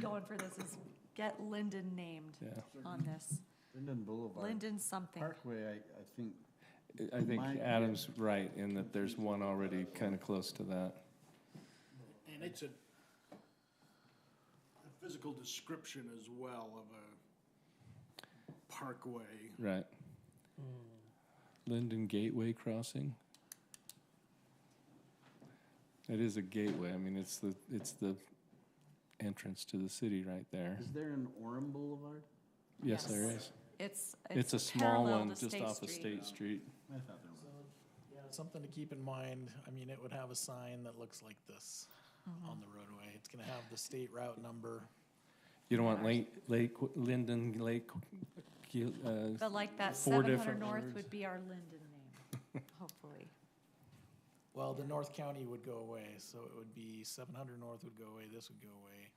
going for this is get Linden named Yeah, on this. Linden Boulevard. Linden something. Parkway, I, I think, I I think My- Adam's right in that there's one already kind of close to that. And it's a, a physical description as well of a parkway. Right. Hmm. Linden Gateway Crossing. It is a gateway. I mean, it's the, it's the entrance to the city right there. is there an Orem Boulevard? Yes, there Yes. is. It's, It's a small parallel one to just State off of Street. State Street. I thought there was. Something to keep in mind, I mean, it would have a sign that looks like this Mm-hmm. on the roadway. It's gonna have the state route number. You don't want Lake, Lake, Linden Lake, uh, But like that seven Four hundred different north words. would be our Linden name, hopefully. Well, the North County would go away, so it would be seven hundred north would go away, this would go away.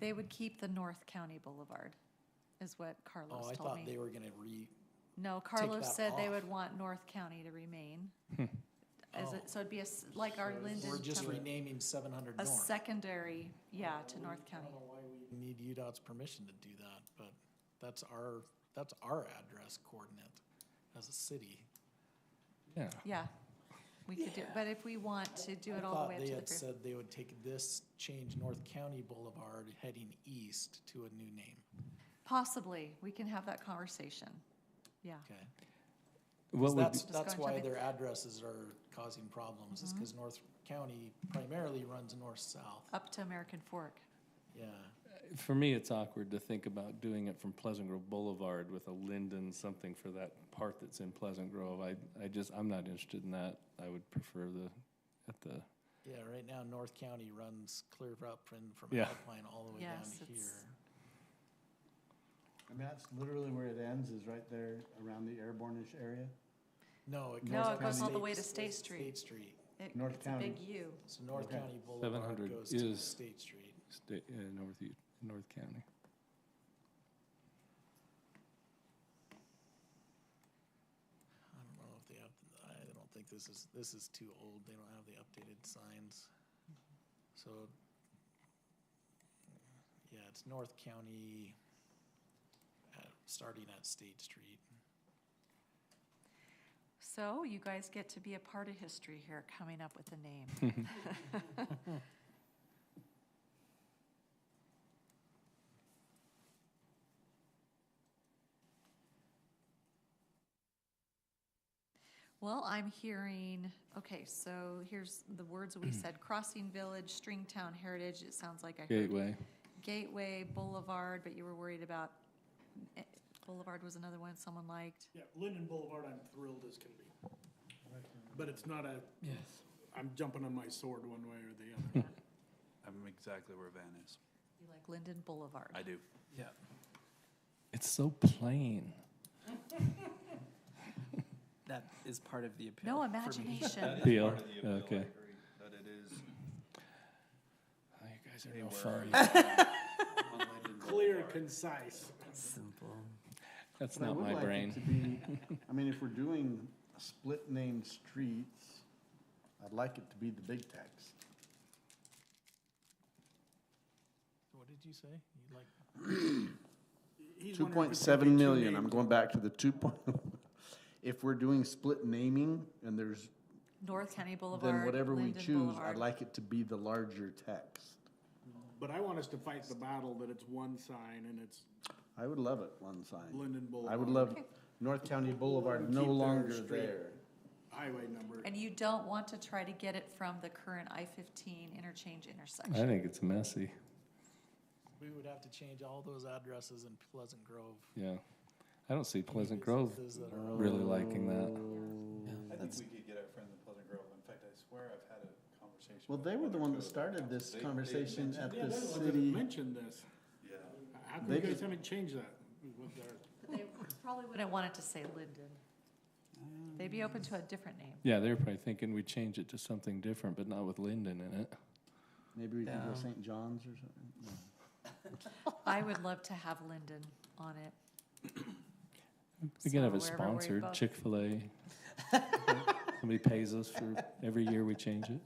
They would keep the North County Boulevard, is what Oh, I Carlos told thought they me. were gonna re, No, Carlos that said they off. would want North County to remain. As Oh. it, so it'd be a s like our Linden, we're just temp- renaming seven hundred a north. secondary, yeah, to North County. We Need UDOT's permission to do that, but that's our, that's our address coordinate as a city. yeah. Yeah, we could do, it. but if we want to do I it all the thought way up they to the. had fif- said they would take this, change North County Boulevard heading east to a new name, Possibly, we can have that conversation, yeah. okay? What So would, That's, be- that's Just going why to be- their addresses are causing problems, Mm-hmm. is because North County primarily runs north-south, Up to American Fork, yeah. for me, it's awkward to think about doing it from Pleasant Grove Boulevard with a Linden something for that part that's in Pleasant Grove. I, I just, I'm not interested in that. I would prefer the, at the, Yeah, right now, North County runs clear up from, from Yeah. Alpine all the way down Yes, to it's- here. I mean, that's literally where it ends, is right there around the Airborne-ish area. No, it goes. No, it up goes all the way to State State- Street. State Street, It- North it's a big County. U, so North Okay. County Boulevard 700 goes to is- State Street. state, uh, North, North County. I don't know if they have, I don't think this is, this is too old, they don't have the updated signs. Mm-hmm. So, yeah, it's North County, uh, starting at State Street. so you guys get to be a part of history here, coming up with a name. Well, I'm hearing, okay, so here's the words we said, Crossing Village, Stringtown Heritage, it sounds like I heard. Gateway. Gateway Boulevard, but you were worried about, eh, Boulevard was another one someone liked. Yeah, Linden Boulevard, I'm thrilled as can be. But it's not a. Yes. I'm jumping on my sword one way or the other. I'm exactly where Van is. You like Linden Boulevard. I do. Yeah. It's so plain. That is part of the appeal. No for me. imagination. Deal, okay. That it is. Oh, You guys Hey, are no where fun. on Linden Clear, Boulevard. concise. Simple. That's But I not would my like it brain. to be- I mean, if we're doing split name streets, I'd like it to be the big text. What did you say? You like, He's Two wondering if point it's gonna be seven two million, I'm names. going back to the two point, if we're doing split naming and there's, North County Boulevard. then whatever we Linden choose, Boulevard. I'd like it to be the larger text. But I want us to fight the battle that it's one sign and it's I would love it, one sign. Linden Boulevard. I would love North County Boulevard no Keep their longer street. there. Highway number. And you don't want to try to get it from the current I-15 interchange I intersection. think it's messy, we would have to change all those addresses in Pleasant Grove. yeah. I don't see Pleasant Grove Businesses that are- really liking that. I think we could get it from the Pleasant Grove. In fact, I swear I've had a conversation. Well, with they were one the or one two that other started towns. this They- they conversation mentioned- at Yeah, the they're the ones that city. mentioned this. Yeah. How come They you guys just- haven't changed that with their? They Probably wouldn't want it to say Linden. They'd be open to a different name. Yeah, they're probably thinking we change it to something different, but not with Linden in it. Maybe we can go Yeah. St. John's or something. No. I would love to have Linden on it. We can have a So wherever we sponsor, both- Chick-fil-A. Somebody pays us for every year we change it.